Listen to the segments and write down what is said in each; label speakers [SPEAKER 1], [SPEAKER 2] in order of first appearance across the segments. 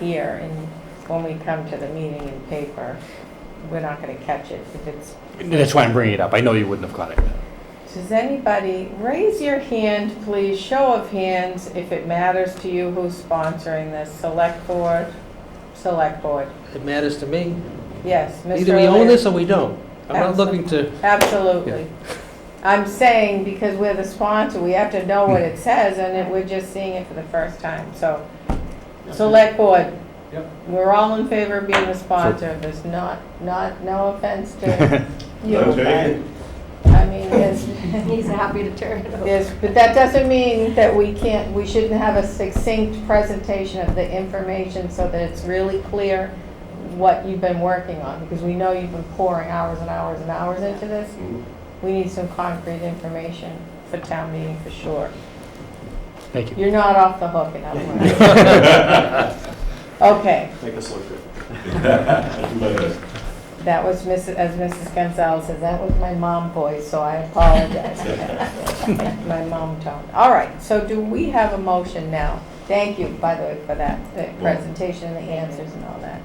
[SPEAKER 1] here and when we come to the meeting in paper, we're not going to catch it if it's,
[SPEAKER 2] That's why I'm bringing it up. I know you wouldn't have caught it.
[SPEAKER 1] does anybody, raise your hand, please, show of hands, if it matters to you who's sponsoring this, select board, select board,
[SPEAKER 3] It matters to me.
[SPEAKER 1] yes, Mr.
[SPEAKER 3] Either we own
[SPEAKER 1] O'Leary.
[SPEAKER 3] this or we don't. I'm not
[SPEAKER 1] Absolutely.
[SPEAKER 3] looking to,
[SPEAKER 1] Absolutely. I'm saying because we're the sponsor, we have to know what
[SPEAKER 3] Hmm.
[SPEAKER 1] it says, and it- we're just seeing it for the first time, so. Select board.
[SPEAKER 4] Yep.
[SPEAKER 1] We're all in favor of being the sponsor, there's not, not, no offense to you.
[SPEAKER 4] I'll take
[SPEAKER 1] but,
[SPEAKER 4] it.
[SPEAKER 1] I mean, there's,
[SPEAKER 5] He's happy to turn it over.
[SPEAKER 1] there's, but that doesn't mean that we can't, we shouldn't have a succinct presentation of the information so that it's really clear what you've been working on, because we know you've been pouring hours and hours and hours into this. We need some concrete information for town meeting for sure.
[SPEAKER 2] Thank you.
[SPEAKER 1] You're not off the hook in other words. Okay,
[SPEAKER 4] Make us look good.
[SPEAKER 1] that was Mrs., as Mrs. Gonzalez says, that was my mom voice, so I apologize. for that. My mom tone. All right, so do we have a motion now? Thank you, by the way, for that, the presentation and the answers and all that.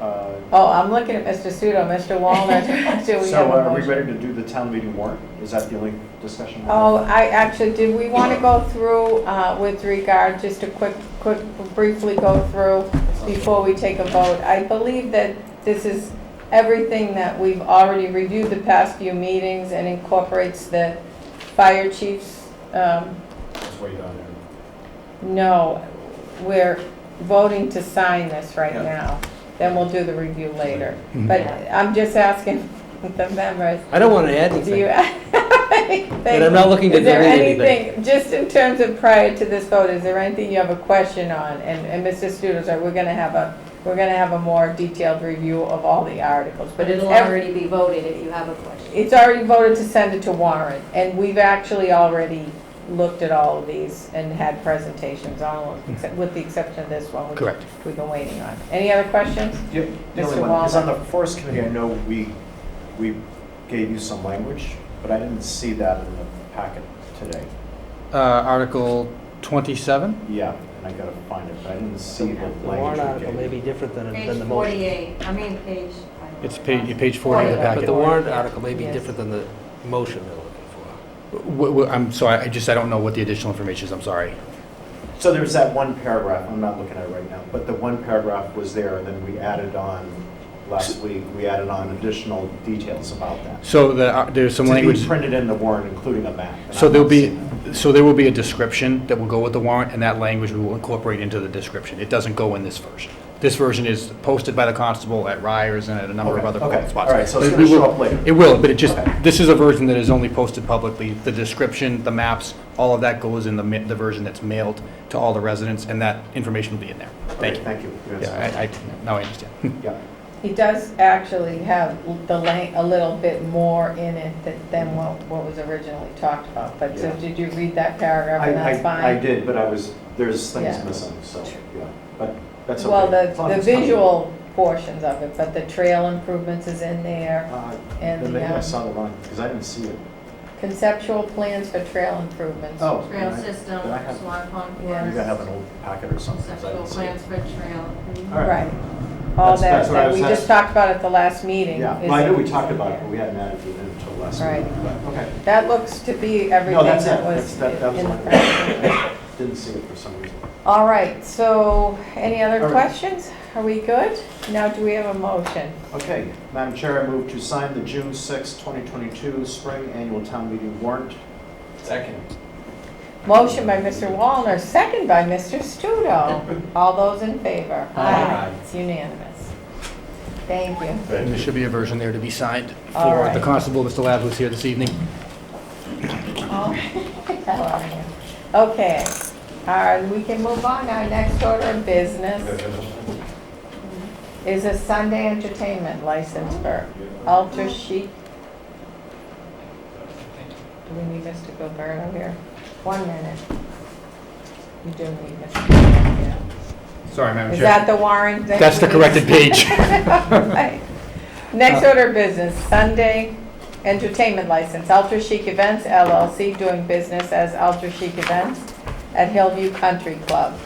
[SPEAKER 6] Uh,
[SPEAKER 1] Oh, I'm looking at Mr. Sudo, Mr. Walner, do we have
[SPEAKER 6] So uh,
[SPEAKER 1] a
[SPEAKER 6] are we ready
[SPEAKER 1] motion?
[SPEAKER 6] to do the town meeting warrant? Is that the only discussion? we have?
[SPEAKER 1] Oh, I, actually, did we want to go through uh, with regard, just a quick, quick, briefly go through before we take a vote? I believe that this is everything that we've already reviewed the past few meetings and incorporates the fire chief's, um,
[SPEAKER 4] Just wait on it.
[SPEAKER 1] no, we're voting to sign this right
[SPEAKER 6] Yeah.
[SPEAKER 1] now. Then we'll do the review later.
[SPEAKER 2] Mhm.
[SPEAKER 1] But I'm just asking the members,
[SPEAKER 3] I don't want to add
[SPEAKER 1] do you
[SPEAKER 3] anything.
[SPEAKER 1] And
[SPEAKER 3] And I'm not looking to
[SPEAKER 1] Is there
[SPEAKER 3] delete anything.
[SPEAKER 1] anything, just in terms of prior to this vote, is there anything you have a question on? And, and Mr. Studo, sorry, we're gonna have a, we're gonna have a more detailed review of all the articles,
[SPEAKER 5] But
[SPEAKER 1] but it's
[SPEAKER 5] it'll
[SPEAKER 1] every,
[SPEAKER 5] already be voted if you have a question.
[SPEAKER 1] it's already voted to send it to warrant, and we've actually already looked at all of these and had presentations on, all of them, except- with the exception of this one. which
[SPEAKER 2] Correct.
[SPEAKER 1] We've been waiting on. Any other questions?
[SPEAKER 6] Yep, The only
[SPEAKER 1] Mr.
[SPEAKER 6] one, because on
[SPEAKER 1] Waller.
[SPEAKER 6] the forest committee, I know we, we gave you some language, but I didn't see that in the packet today.
[SPEAKER 2] Uh, Article 27?
[SPEAKER 6] Yeah, and I gotta find it, but I didn't see the
[SPEAKER 3] The warrant
[SPEAKER 6] language
[SPEAKER 3] article
[SPEAKER 6] we
[SPEAKER 3] may
[SPEAKER 6] gave.
[SPEAKER 3] be different than, than
[SPEAKER 5] Page
[SPEAKER 3] the motion.
[SPEAKER 5] 48, I mean, page.
[SPEAKER 2] It's page, page 40 of the
[SPEAKER 3] But the
[SPEAKER 2] packet.
[SPEAKER 3] warrant article may be
[SPEAKER 1] Yes.
[SPEAKER 3] different than the motion they're looking for.
[SPEAKER 2] Wh- wh- I'm, so I I just, I don't know what the additional information is, I'm sorry.
[SPEAKER 6] So there's that one paragraph, I'm not looking at it right now, but the one paragraph was there, and then we added on, last week, we added on additional details about that.
[SPEAKER 2] So the, uh, there's some
[SPEAKER 6] To be
[SPEAKER 2] language,
[SPEAKER 6] printed in the warrant, including a map. and I
[SPEAKER 2] so there'll
[SPEAKER 6] didn't see
[SPEAKER 2] be,
[SPEAKER 6] that.
[SPEAKER 2] so there will be a description that will go with the warrant, and that language we will incorporate into the description. It doesn't go in this version. This version is posted by the constable at Ryers and at a number of
[SPEAKER 6] Okay,
[SPEAKER 2] other
[SPEAKER 6] okay.
[SPEAKER 2] spots.
[SPEAKER 6] All right, so it's
[SPEAKER 2] But
[SPEAKER 6] gonna
[SPEAKER 2] we will-
[SPEAKER 6] show up later.
[SPEAKER 2] It will, but it just,
[SPEAKER 6] Okay.
[SPEAKER 2] this is a version that is only posted publicly. The description, the maps, all of that goes in the, ma- the version that's mailed to all the residents, and that information will be in there. Thank
[SPEAKER 6] Okay,
[SPEAKER 2] you.
[SPEAKER 6] Thank you. Yes.
[SPEAKER 2] Yeah, I, I, now I understand.
[SPEAKER 6] Yeah.
[SPEAKER 1] It does actually have the la a little bit more in it than, than what, what was originally talked about. But so
[SPEAKER 6] Yeah.
[SPEAKER 1] did you read that paragraph and
[SPEAKER 6] I-
[SPEAKER 1] that's
[SPEAKER 6] I, I
[SPEAKER 1] fine?
[SPEAKER 6] did, but I was, there's things
[SPEAKER 1] Yeah.
[SPEAKER 6] missing, so, yeah, but that's okay.
[SPEAKER 1] Well,
[SPEAKER 6] As long
[SPEAKER 1] the,
[SPEAKER 6] as
[SPEAKER 1] the
[SPEAKER 6] it's coming.
[SPEAKER 1] visual portions of it, but the trail improvements is in there.
[SPEAKER 6] Uh,
[SPEAKER 1] and
[SPEAKER 6] Then
[SPEAKER 1] the,
[SPEAKER 6] maybe I
[SPEAKER 1] um,
[SPEAKER 6] saw the line, because I didn't see it.
[SPEAKER 1] Conceptual plans for trail improvements.
[SPEAKER 6] Oh.
[SPEAKER 5] Trail
[SPEAKER 6] then I-
[SPEAKER 5] system,
[SPEAKER 6] then I have-
[SPEAKER 5] Swan Pond
[SPEAKER 1] Yeah.
[SPEAKER 6] Maybe I have
[SPEAKER 5] Forest,
[SPEAKER 6] an old packet or something, 'cause I
[SPEAKER 5] conceptual
[SPEAKER 6] didn't see it.
[SPEAKER 5] plans for trail.
[SPEAKER 6] All right.
[SPEAKER 1] Right. All
[SPEAKER 6] That's-
[SPEAKER 1] that,
[SPEAKER 6] that's what I
[SPEAKER 1] that
[SPEAKER 6] was
[SPEAKER 1] we just
[SPEAKER 6] asking.
[SPEAKER 1] talked about at the last meeting.
[SPEAKER 6] Yeah,
[SPEAKER 1] is
[SPEAKER 6] well, I
[SPEAKER 1] in-
[SPEAKER 6] knew we talked about it, but we hadn't added it in until last
[SPEAKER 1] Right.
[SPEAKER 6] week, but, okay.
[SPEAKER 1] That looks to be everything
[SPEAKER 6] No, that's it,
[SPEAKER 1] that
[SPEAKER 6] that's,
[SPEAKER 1] was
[SPEAKER 6] that, that was
[SPEAKER 1] in the
[SPEAKER 6] mine.
[SPEAKER 1] presentation.
[SPEAKER 6] Didn't see it for some reason.
[SPEAKER 1] All right, so any other
[SPEAKER 6] All right.
[SPEAKER 1] questions? Are we good? Now, do we have a motion?
[SPEAKER 6] Okay, Madam Chair, I move to sign the June sixth, 2022 Spring Annual Town Meeting warrant.
[SPEAKER 4] Second.
[SPEAKER 1] Motion by Mr. Wallner, second by Mr. Studo. All those in favor?
[SPEAKER 4] Aye.
[SPEAKER 1] It's unanimous. Thank you.
[SPEAKER 2] There should be a version there to be signed
[SPEAKER 1] All
[SPEAKER 2] for
[SPEAKER 1] right.
[SPEAKER 2] the constable, Mr. Labs was here this evening.
[SPEAKER 1] All right. How are you? Okay, all right, we can move on. Our next order of business is a Sunday entertainment license for Alter Chic. Do we need Mr. Gilberto here? One minute. You do need Mr. Gilberto here.
[SPEAKER 2] Sorry, Madam
[SPEAKER 1] Is that the warrant? that
[SPEAKER 2] That's
[SPEAKER 1] we
[SPEAKER 2] the corrected page.
[SPEAKER 1] Right. Next order of business, Sunday entertainment license, Ultra Chic Events LLC, doing business as Ultra Chic Events at Hillview Country Club.